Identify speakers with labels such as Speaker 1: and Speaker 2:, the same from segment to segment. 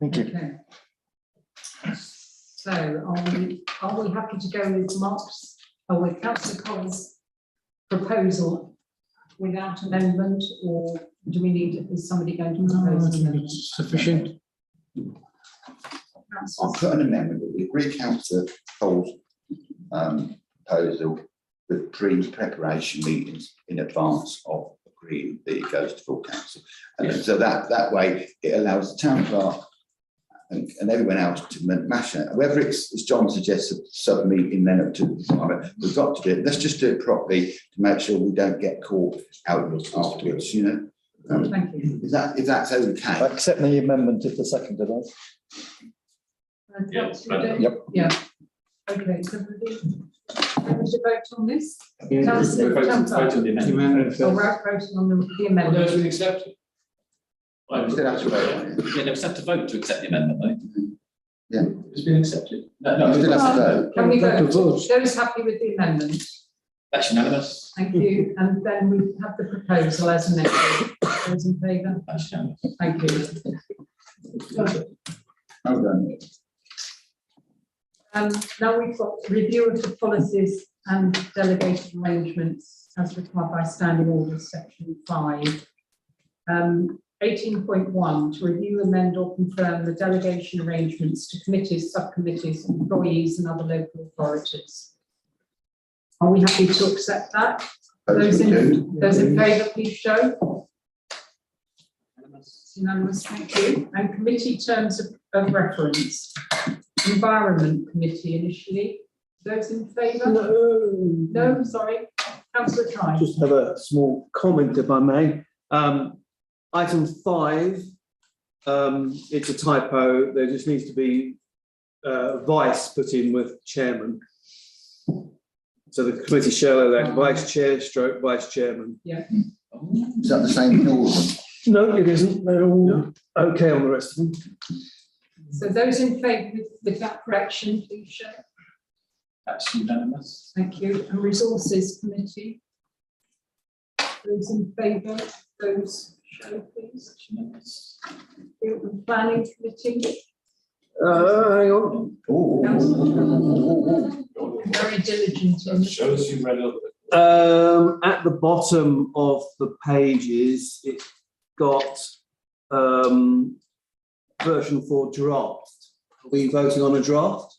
Speaker 1: Thank you.
Speaker 2: Okay. So are we, are we happy to go with Mark's, or with councillor Cole's proposal without amendment, or do we need, is somebody going to propose an amendment?
Speaker 3: Sufficient.
Speaker 4: I'll put an amendment that we agree councillor Cole's um, proposal with pre-preparation meetings in advance of agreeing that it goes to full council. And so that, that way, it allows the town clerk and, and everyone else to ma- mash it, whether it's, as John suggests, a sub-meeting then up to, the time, we've got to do it, let's just do it properly to make sure we don't get caught out afterwards, you know? Um,
Speaker 2: Thank you.
Speaker 4: Is that, if that's
Speaker 1: I
Speaker 4: okay?
Speaker 1: accept the amendment if the second did that.
Speaker 2: That's what we do.
Speaker 1: Yep.
Speaker 2: Yeah. Okay, so we do- we need to vote on this,
Speaker 5: We're voting-
Speaker 2: Councillor.
Speaker 5: voting the amendment.
Speaker 6: Oh,
Speaker 2: or we're voting on the the amendment?
Speaker 3: accept it.
Speaker 4: We still have to vote on it.
Speaker 5: Yeah, they have to vote to accept the amendment, though.
Speaker 4: Yeah.
Speaker 5: It's been accepted. No,
Speaker 4: You still
Speaker 5: no,
Speaker 4: have to vote.
Speaker 2: Can we
Speaker 3: We've got to
Speaker 2: vote? Those happy with the amendment?
Speaker 5: that's unanimous.
Speaker 2: Thank you. And then we have the proposal as amended. Those in favour?
Speaker 5: That's unanimous.
Speaker 2: Thank you.
Speaker 4: Hold on.
Speaker 2: Um, now we've got review of the policies and delegated arrangements as required by standing orders, section five. Um, eighteen point one, to review, amend or confirm the delegation arrangements to committees, subcommittees, employees and other local authorities. Are we happy to accept that? Those
Speaker 4: Those we do.
Speaker 2: in, those in favour, please show. Unanimous, thank you. And committee terms of, of reference. Environment Committee initially. Those in favour? No, sorry. Councillor Tribe.
Speaker 3: Just have a small comment if I may. Um, item five, um, it's a typo. There just needs to be, uh, vice put in with chairman. So the committee shall elect vice chair stroke vice chairman.
Speaker 5: Oh,
Speaker 4: Is that the same in all of them?
Speaker 3: No, it isn't. They're all okay on the rest of them.
Speaker 2: So those in favour with, with that correction, please show.
Speaker 5: That's unanimous.
Speaker 2: Thank you. And Resources Committee. Those in favour, those show please.
Speaker 5: That's unanimous.
Speaker 2: And Planning Committee,
Speaker 3: Uh, hang on.
Speaker 4: Oh, oh, oh,
Speaker 2: very diligent in this.
Speaker 6: Shows you read a little
Speaker 3: Um, at the bottom of the pages, it's got, um, version four draft. Are we voting on a draft?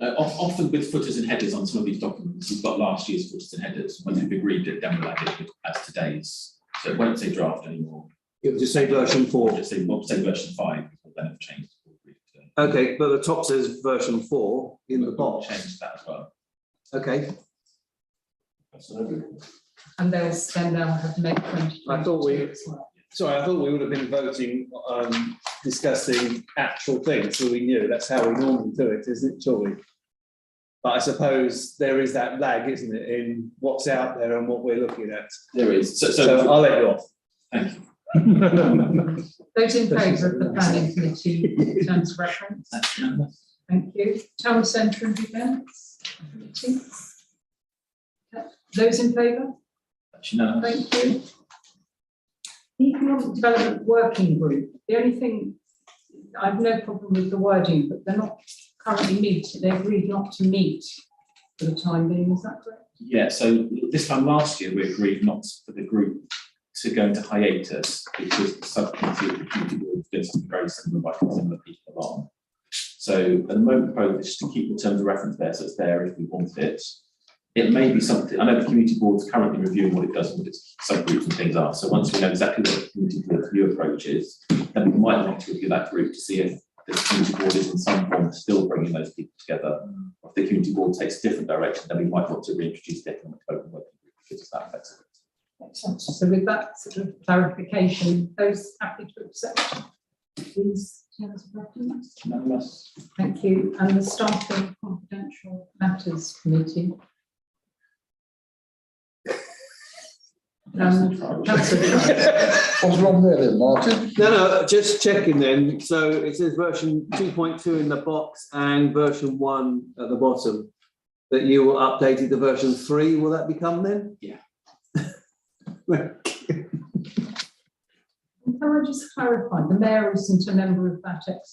Speaker 5: Uh, of- often with footers and headers on some of these documents, we've got last year's footers and headers, once we've agreed it, then we'll add it as today's. So it won't say draft anymore,
Speaker 3: It would just say version
Speaker 5: or
Speaker 3: four.
Speaker 5: just say, well, say version five, we'll then have changed. we'll agree to-
Speaker 3: Okay, but the top says version four in the
Speaker 5: we'll
Speaker 3: box.
Speaker 5: Change that as well.
Speaker 3: Okay,
Speaker 6: bit.
Speaker 2: and they'll spend, they'll have May twenty.
Speaker 3: I thought we-
Speaker 2: as well.
Speaker 3: sorry, I thought we would have been voting, um, discussing actual things, so we knew, that's how we normally do it, isn't it, Joy? But I suppose there is that lag, isn't it, in what's out there and what we're looking at.
Speaker 5: There is, so,
Speaker 3: So
Speaker 5: so,
Speaker 3: I'll let you off.
Speaker 5: thank you.
Speaker 2: Those in favour of the planning committee in terms of reference,
Speaker 5: That's unanimous.
Speaker 2: thank you. Town centre and events. committee. Those in favour,
Speaker 5: That's unanimous.
Speaker 2: thank you. Economic Development Working Group, the only thing, I've no problem with the wording, but they're not currently meeting, they agreed not to meet for the time being, is that correct?
Speaker 5: Yeah, so this time last year, we agreed not for the group to go into hiatus because the subcommittee of the community board was doing something very similar, inviting similar people along. So at the moment, proposed is to keep the terms of reference there, so it's there if we want it. It may be something, I know the community board's currently reviewing what it does and what its subgroups and things are, so once we know exactly what the community board's new approach is, then we might want to review that group to see if the community board is in some form still bringing those people together if the community board takes a different direction, then we might want to reintroduce the economic development working group because of that flexibility.
Speaker 2: So with that sort of clarification, those happy to accept these terms of reference?
Speaker 5: Unanimous?
Speaker 2: Thank you. And the staff and confidential matters committee. Um, Councillor,
Speaker 4: What's wrong there then, Martin?
Speaker 3: No, no, just checking then. So it says version two point two in the box and version one at the bottom. That you will update it to version three, will that become then?
Speaker 5: Yeah.
Speaker 2: can I just clarify, the mayor isn't a member of that ex